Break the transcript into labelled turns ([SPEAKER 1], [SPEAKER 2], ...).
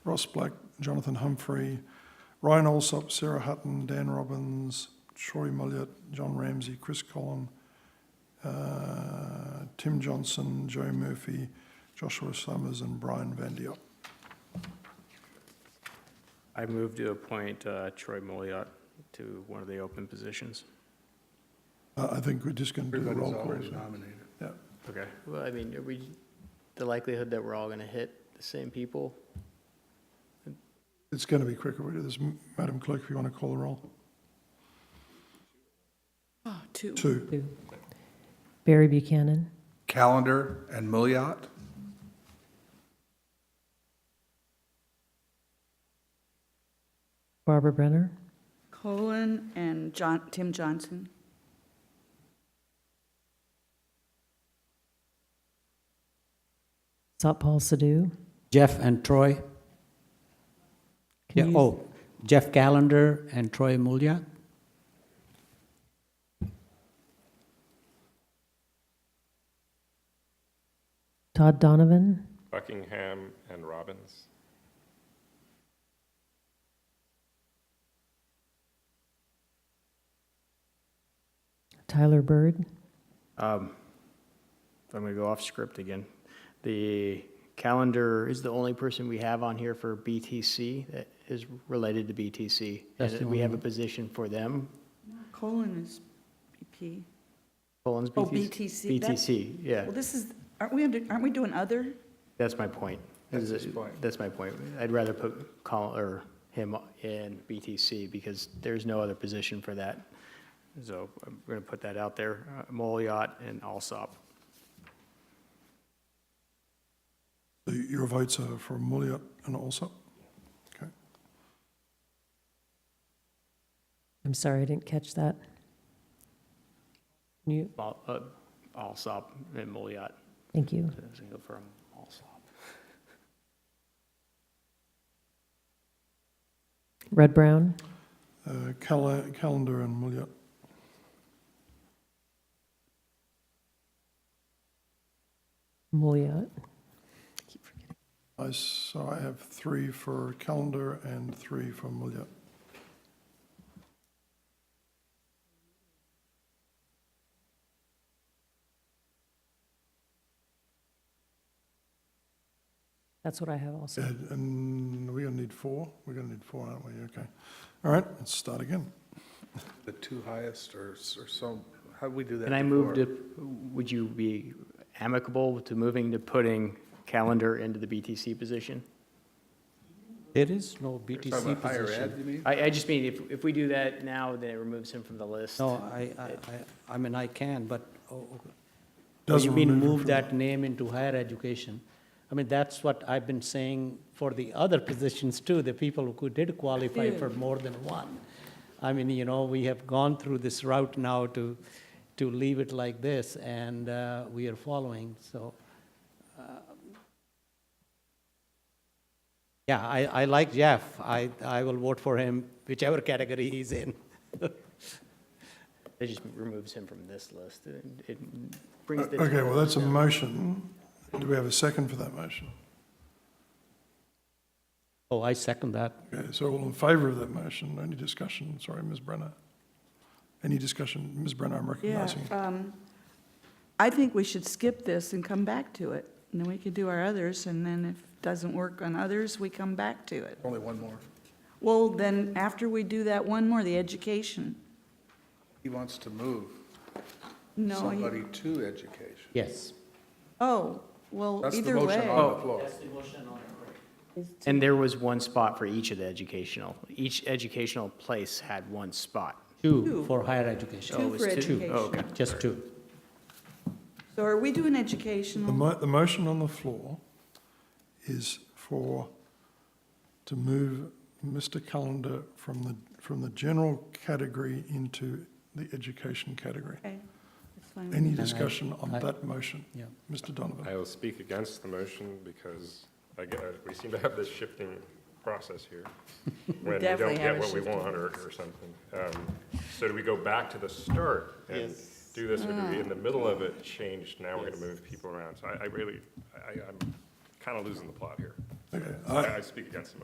[SPEAKER 1] Ross Black, Jonathan Humphrey, Ryan Alsop, Sarah Hutton, Dan Robbins, Troy Mulliott, John Ramsey, Chris Collin, uh, Tim Johnson, Joe Murphy, Joshua Summers, and Brian Van Diop.
[SPEAKER 2] I move to appoint uh, Troy Moliot to one of the open positions.
[SPEAKER 1] Uh, I think we're just going to do the roll
[SPEAKER 3] Everybody's
[SPEAKER 1] call.
[SPEAKER 3] already nominated.
[SPEAKER 2] Okay.
[SPEAKER 4] Well, I mean, are we, the likelihood that we're all going to hit the same people?
[SPEAKER 1] It's going to be quicker. We do this, M- Madam Clerk, if you want to call the roll.
[SPEAKER 5] Oh, two.
[SPEAKER 1] Two.
[SPEAKER 6] Barry Buchanan,
[SPEAKER 3] Calendar and Milliot?
[SPEAKER 6] Barbara Brenner,
[SPEAKER 5] Colin and John, Tim Johnson.
[SPEAKER 6] Paul Sadoo.
[SPEAKER 7] Jeff and Troy. Yeah,
[SPEAKER 6] Can you-
[SPEAKER 7] oh, Jeff Callender and Troy Mulia.
[SPEAKER 6] Todd Donovan,
[SPEAKER 8] Buckingham and Robbins.
[SPEAKER 6] Tyler Bird,
[SPEAKER 2] Um, I'm going to go off script again. The calendar is the only person we have on here for BTC that is related to BTC.
[SPEAKER 7] That's the
[SPEAKER 2] And we have a
[SPEAKER 7] only-
[SPEAKER 2] position for them,
[SPEAKER 5] Colin is E BP.
[SPEAKER 2] Colin's BTC.
[SPEAKER 5] Oh, BTC, that's-
[SPEAKER 2] BTC, yeah.
[SPEAKER 5] Well, this is, aren't we, under- aren't we doing other?
[SPEAKER 2] That's my point.
[SPEAKER 3] That's
[SPEAKER 2] Is
[SPEAKER 3] his
[SPEAKER 2] it-
[SPEAKER 3] point.
[SPEAKER 2] That's my point. I'd rather put Colin, or him in BTC because there's no other position for that. So I'm going to put that out there, uh, Moliot and Alsop.
[SPEAKER 1] So Your votes are for Mulliott and Alsop. Okay.
[SPEAKER 6] I'm sorry, I didn't catch that. Can You,
[SPEAKER 2] Al- uh, Alsop and Moliot.
[SPEAKER 6] thank you.
[SPEAKER 2] So I was going to go for Alsop.
[SPEAKER 6] Red Brown,
[SPEAKER 1] Uh, Cala- Calendar and Mulliott.
[SPEAKER 6] Mouliot,
[SPEAKER 1] I, so I have three for Calendar and three for Mulliott.
[SPEAKER 6] that's what I have also.
[SPEAKER 1] And- And we're going to need four. We're going to need four, aren't we? Okay. All right, let's start again.
[SPEAKER 3] The two highest or, or so, how do we do that?
[SPEAKER 2] Can I move
[SPEAKER 3] before?
[SPEAKER 2] to, would you be amicable to moving to putting Calendar into the BTC position?
[SPEAKER 7] There is no
[SPEAKER 3] You're talking
[SPEAKER 7] BTC
[SPEAKER 3] about higher ed,
[SPEAKER 7] position.
[SPEAKER 3] you mean?
[SPEAKER 2] I, I just mean, if, if we do that now, then it removes him from the list.
[SPEAKER 7] No, I, I, I- I mean, I can, but, oh, oh, oh,
[SPEAKER 1] Doesn't
[SPEAKER 7] you mean
[SPEAKER 1] remove it
[SPEAKER 7] move
[SPEAKER 1] from
[SPEAKER 7] that name into higher education? I mean, that's what I've been saying for the other positions too, the people who did qualify for more than one. I mean, you know, we have gone through this route now to, to leave it like this, and uh, we are following, so. um, Yeah, I, I like Jeff. I, I will vote for him, whichever category he's in.
[SPEAKER 2] It just removes him from this list. It- It brings the.
[SPEAKER 1] Uh, Okay, well, that's a motion. Do we have a second for that motion?
[SPEAKER 7] Oh, I second that.
[SPEAKER 1] Okay, so all in favor of that motion? Any discussion? Sorry, Ms. Brenner. Any discussion? Ms. Brenner, I'm
[SPEAKER 5] Yeah.
[SPEAKER 1] recognizing. you.
[SPEAKER 5] um, I think we should skip this and come back to it. And then we could do our others, and then if it doesn't work on others, we come back to it.
[SPEAKER 3] Only one more.
[SPEAKER 5] Well, then, after we do that one more, the education.
[SPEAKER 3] He wants to move
[SPEAKER 5] No, he-
[SPEAKER 3] somebody to education.
[SPEAKER 7] Yes.
[SPEAKER 5] oh, well,
[SPEAKER 3] That's the
[SPEAKER 5] either way.
[SPEAKER 3] motion on the floor.
[SPEAKER 2] And there was one spot for each of the educational, each educational place had one spot.
[SPEAKER 7] Two for higher education.
[SPEAKER 5] Two for
[SPEAKER 2] Oh, okay.
[SPEAKER 5] education.
[SPEAKER 7] Just two.
[SPEAKER 5] So are we doing
[SPEAKER 7] Mm.
[SPEAKER 1] The
[SPEAKER 5] educational?
[SPEAKER 1] mo, the motion on the floor is for, to move Mr. Callender from the, from the general category into the education category.
[SPEAKER 5] Okay, that's fine.
[SPEAKER 1] Any
[SPEAKER 7] I-
[SPEAKER 1] discussion on
[SPEAKER 7] Mm. I-
[SPEAKER 1] that motion?
[SPEAKER 7] Yeah.
[SPEAKER 1] Mr. Donovan?
[SPEAKER 8] I will speak against the motion because I get, we seem to have this shifting process here. When we
[SPEAKER 5] definitely
[SPEAKER 8] don't
[SPEAKER 5] have
[SPEAKER 8] get
[SPEAKER 5] a
[SPEAKER 8] what we
[SPEAKER 5] shifting
[SPEAKER 8] want or, or something. Um, So do we go back to the start and do this, or do
[SPEAKER 5] Mm.
[SPEAKER 8] we, in the middle of it, change, now we're gonna move people around? So I, I really, I, I'm kinda losing the plot here.
[SPEAKER 1] Okay,
[SPEAKER 8] I, I speak against the motion.